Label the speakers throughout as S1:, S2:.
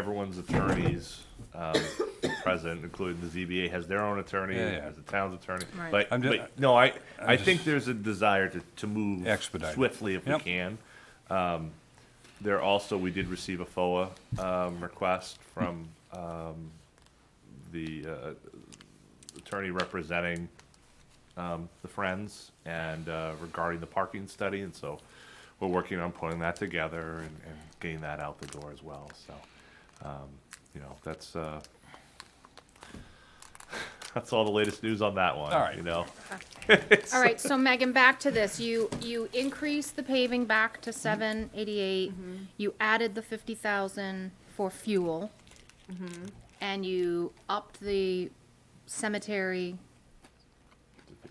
S1: everyone's attorneys um, present, including the ZBA has their own attorney,
S2: Yeah, yeah.
S1: has the town's attorney.
S3: Right.
S1: But,
S2: I'm ju-
S1: but, no, I, I
S2: just-
S1: think there's a desire to, to move
S2: Expedite.
S1: swiftly if we
S2: Yep.
S1: can. Um, There also, we did receive a FOA um, request from um, the uh, attorney representing um, the Friends and uh, regarding the parking study, and so we're working on pulling that together and, and getting that out the door as well, so, um, you know, that's, uh, that's all the latest news on that one,
S2: All right.
S1: you know?
S3: All right, so Megan, back to this. You, you increased the paving back to seven eighty-eight. You added the fifty thousand for fuel. And you upped the cemetery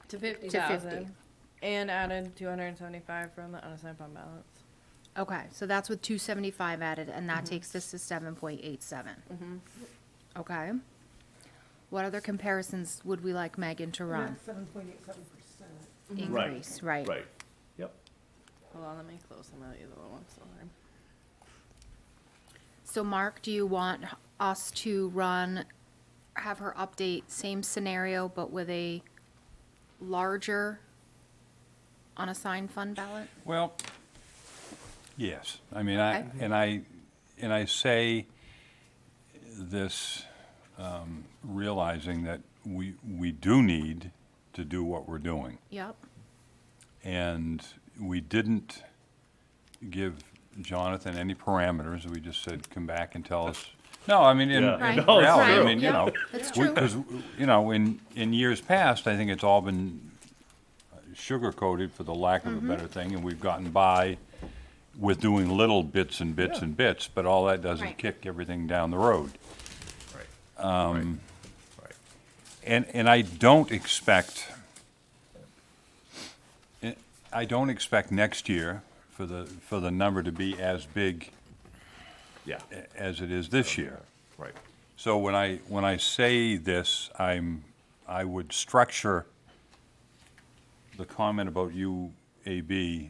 S4: To fifty
S3: to fifty.
S4: thousand. And added two hundred and seventy-five from the unassigned fund balance.
S3: Okay, so that's with two seventy-five added, and that takes us to seven point eight seven. Okay. What other comparisons would we like Megan to run?
S5: Seven point eight seven percent.
S1: Right,
S3: Increase, right?
S1: Right, yep.
S4: Hold on, let me close some of these other ones, sorry.
S3: So Mark, do you want us to run, have her update same scenario, but with a larger unassigned fund ballot?
S2: Well, yes, I mean, I,
S3: Okay.
S2: and I, and I say this um, realizing that we, we do need to do what we're doing.
S3: Yep,
S2: And we didn't give Jonathan any parameters, we just said, come back and tell us. No, I mean, in
S1: Yeah.
S2: in
S3: Right.
S1: No, it's
S2: reality, I
S1: true.
S2: mean, you know.
S3: that's true.
S2: Because, you know, in, in years past, I think it's all been sugar-coated, for the lack
S3: Mm-hmm.
S2: of a better thing, and we've gotten by with doing little bits and bits and bits, but all that does is
S3: Right.
S2: kick everything down the road.
S1: Right. Um. Right.
S2: And, and I don't expect, I- I don't expect next year for the, for the number to be as big
S1: Yeah,
S2: a- as it is this year.
S1: right,
S2: So when I, when I say this, I'm, I would structure the comment about UAB, um,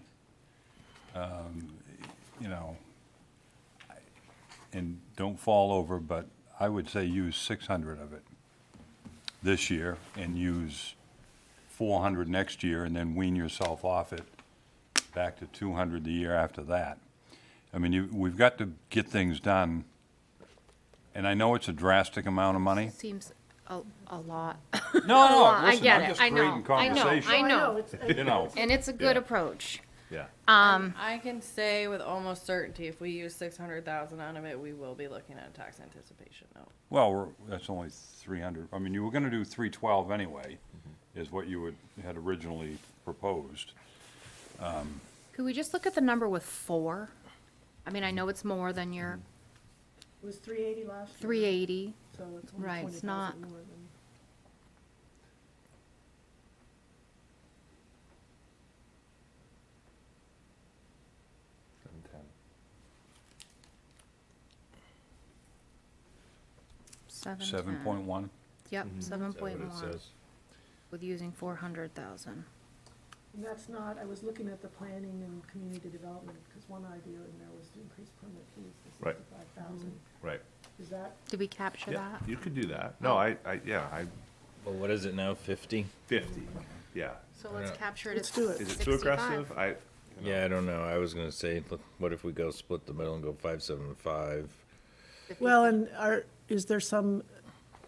S2: you know, and don't fall over, but I would say use six hundred of it this year and use four hundred next year and then wean yourself off it back to two hundred the year after that. I mean, you, we've got to get things done. And I know it's a drastic amount of money.
S3: Seems a, a lot.
S2: No, no,
S3: I
S2: listen,
S3: get
S2: I'm
S3: it.
S2: just
S3: I know.
S2: creating
S3: I know.
S2: conversation.
S3: I know.
S2: You know,
S3: And it's a good
S1: Yeah.
S3: approach.
S1: yeah.
S3: Um,
S4: I can say with almost certainty, if we use six hundred thousand out of it, we will be looking at a tax anticipation note.
S2: well, we're, that's only three hundred, I mean, you were gonna do three twelve anyway, is what you would, had originally proposed.
S3: Could we just look at the number with four? I mean, I know it's more than your
S5: It was three eighty last year.
S3: three eighty.
S5: So it's
S3: Right,
S5: only twenty
S3: it's not-
S5: thousand more than.
S1: Seven ten.
S2: Seven point one,
S3: Yep, seven point
S1: What it
S3: one,
S1: says.
S3: with using four hundred thousand.
S5: And that's not, I was looking at the planning and community development, because one idea in there was to increase permit fees to
S1: Right.
S5: sixty-five thousand.
S1: Right,
S5: Is that,
S3: Did we capture
S1: yeah,
S3: that?
S1: you could do that. No, I, I, yeah, I,
S6: Well, what is it now, 50?
S1: fifty, yeah.
S3: So let's
S6: Yeah.
S3: capture it
S5: let's
S3: as
S5: do it.
S1: Is it too aggressive?
S3: 65.
S1: I,
S6: Yeah, I don't know. I was gonna say, look, what if we go split the middle and go five, seven, five?
S5: Well, and are, is there some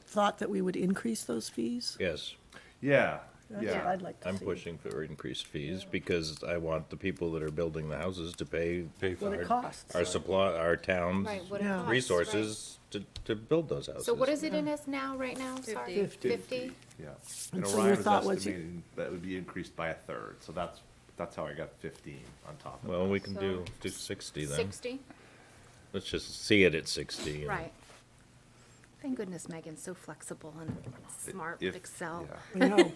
S5: thought that we would increase those fees?
S6: Yes,
S1: yeah,
S5: That's what
S1: yeah.
S5: I'd like to see.
S6: I'm pushing for increased fees because I want the people that are building the houses to pay
S2: pay
S5: What
S2: for
S5: it
S2: it.
S5: costs.
S6: our supply, our town's
S3: Right, what it
S5: Yeah.
S3: costs, right.
S6: resources to, to build those houses.
S3: So what is it in us now, right now? Sorry,
S4: Fifty.
S3: Fifty?
S1: Yeah.
S5: And
S1: And
S5: so your
S1: Orion was
S5: thought was you-
S1: estimating that would be increased by a third, so that's, that's how I got fifteen on top of that.
S6: Well, we can do,
S3: So-
S6: do sixty then.
S3: Sixty,
S6: Let's just see it at sixty. and-
S3: right. Thank goodness Megan's so flexible and smart
S1: If-
S3: with Excel.
S1: yeah.
S5: I know.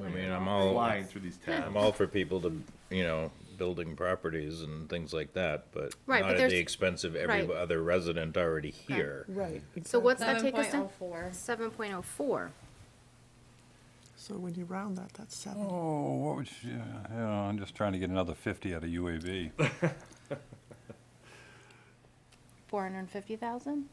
S6: I mean, I'm all,
S1: Flying through these tabs.
S6: I'm all for people to, you know, building properties and things like that, but
S3: Right,
S6: not
S3: but
S6: at
S3: there's-
S6: the expense of every
S3: right.
S6: other resident already here.
S5: Right.
S3: So what's that
S4: Seven
S3: take us
S4: point
S3: to?
S4: oh four.
S3: Seven point oh four.
S5: So when you round that, that's seven.
S2: Oh, what would you, yeah, you know, I'm just trying to get another fifty out of UAV.
S3: four hundred and fifty thousand?